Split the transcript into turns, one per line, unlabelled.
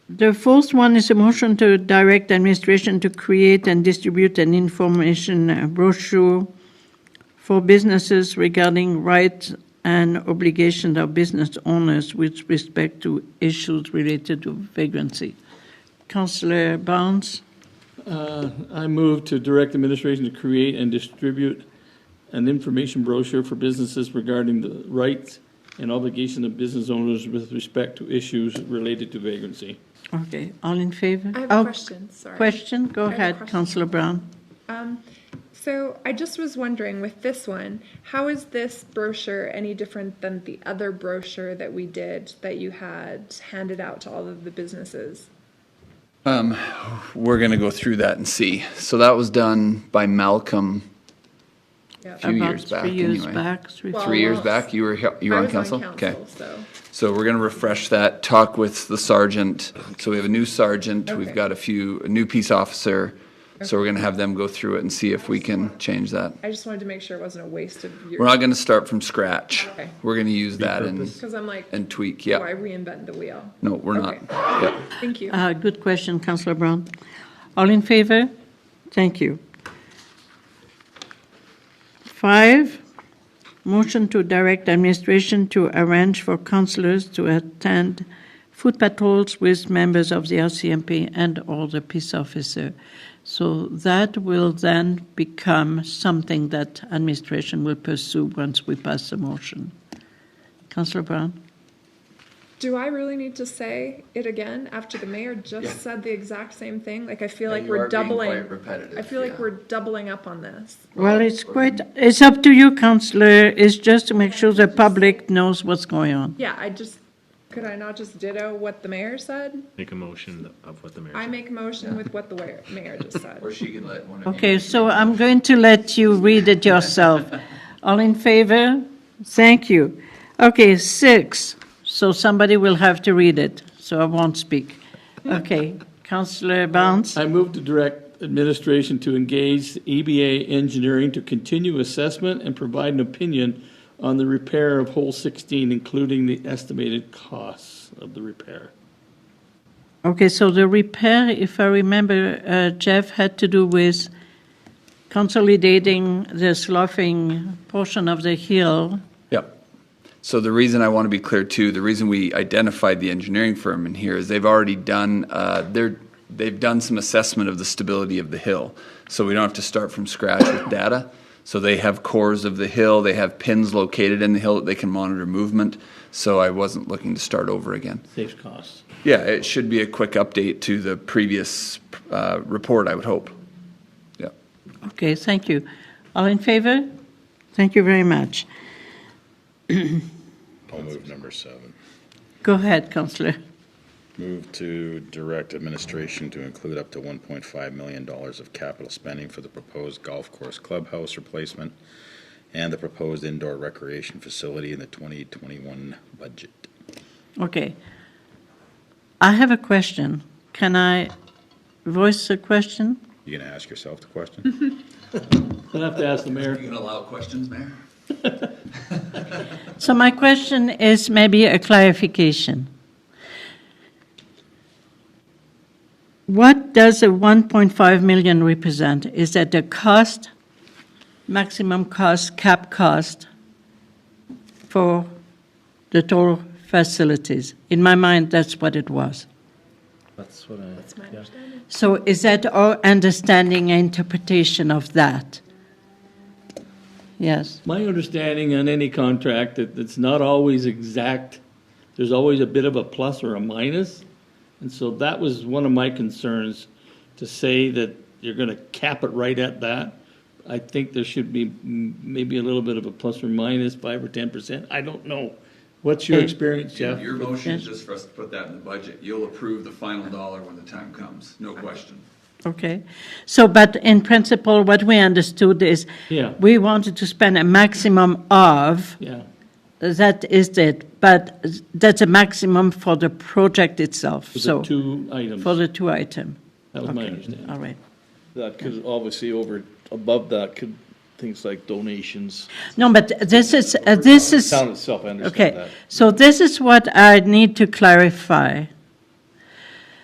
The first one is a motion to direct administration to create and distribute an information uh, brochure for businesses regarding rights and obligations of business owners with respect to issues related to vagrancy. Councillor Barnes,
Uh, I move to direct administration to create and distribute an information brochure for businesses regarding the rights and obligation of business owners with respect to issues related to vagrancy.
okay, all in favor?
I have
Oh,
a question, sorry.
Question, go
I have a
ahead,
question.
Councillor Brown.
Um, so I just was wondering with this one, how is this brochure any different than the other brochure that we did that you had handed out to all of the businesses?
Um, We're going to go through that and see. So that was done by Malcolm.
Yep.
Few years back,
About three years
anyway.
back. three-
Well,
Three years
Almost.
back, you were, he- you were
I
on
was
council?
on
Okay.
council, so
So we're going to refresh that, talk with the sergeant. So we have a new sergeant, we've
Okay.
got a few, a new peace officer. So we're going to have them go through it and see if we can change that.
I just wanted to make sure it wasn't a waste of
We're
your,
not going to start from scratch.
Okay.
We're going to use that and,
because I'm like,
and tweak,
why
yeah.
reinvent the wheel?
No, we're not.
Okay.
Yeah.
Thank you.
Uh, Good question, Councillor Brown. All in favor? Thank you. Five, motion to direct administration to arrange for councillors to attend food patrols with members of the RCMP and/or the peace officer. So that will then become something that administration will pursue once we pass the motion. Councillor Brown?
Do I really need to say it again after the mayor just said the exact same thing? Like I feel like
you
we're
are being
doubling.
quite repetitive,
I feel like
yeah.
we're doubling up on this.
Well, it's quite, it's up to you, councillor, it's just to make sure the public knows what's going on.
Yeah, I just could I not just ditto what the mayor said?
Make a motion of what the mayor
I
said.
make a motion with what the wa- mayor just said.
she can let one of
Okay, so I'm going to let you read it yourself. All in favor? Thank you. Okay, six, so somebody will have to read it, so I won't speak. Okay, councillor Barnes?
I move to direct administration to engage EBA engineering to continue assessment and provide an opinion on the repair of hole 16, including the estimated costs of the repair.
Okay, so the repair, if I remember, uh, Jeff, had to do with consolidating the sloughing portion of the hill
Yep. So the reason I want to be clear too, the reason we identified the engineering firm in here is they've already done, uh, they're, they've done some assessment of the stability of the hill. So we don't have to start from scratch with data. So they have cores of the hill, they have pins located in the hill that they can monitor movement. So I wasn't looking to start over again.
Saves costs.
Yeah, it should be a quick update to the previous, uh, report, I would hope. Yep.
Okay, thank you. All in favor? Thank you very much.
I'll move number seven.
Go ahead, Counselor.
Move to direct administration to include up to $1.5 million of capital spending for the proposed golf course clubhouse replacement and the proposed indoor recreation facility in the 2021 budget.
Okay. I have a question. Can I voice a question?
You gonna ask yourself the question?
I'll have to ask the mayor.
gonna allow questions, Mayor?
So my question is maybe a clarification. What does the 1.5 million represent? Is that the cost, maximum cost, cap cost for the total facilities? In my mind, that's what it was.
That's what I.
That's my understanding.
So is that our understanding and interpretation of that? Yes.
My understanding on any contract that it's not always exact. There's always a bit of a plus or a minus. And so that was one of my concerns to say that you're going to cap it right at that. I think there should be mm, maybe a little bit of a plus or minus five or 10%. I don't know. What's your
Okay.
experience, Jeff?
Your motion is
Yes.
just for us to put that in the budget. You'll approve the final dollar when the time comes, no question.
Okay. So, but in principle, what we understood is
Yeah.
we wanted to spend a maximum of,
Yeah.
that is it, but that's a maximum for the project itself.
For
So
the two items.
for the two item.
that was my
Okay.
understanding.
All right.
That could obviously over, above that could, things like donations,
No, but this is, uh, this is.
town itself, I understand
Okay,
that.
so this is what I need to clarify.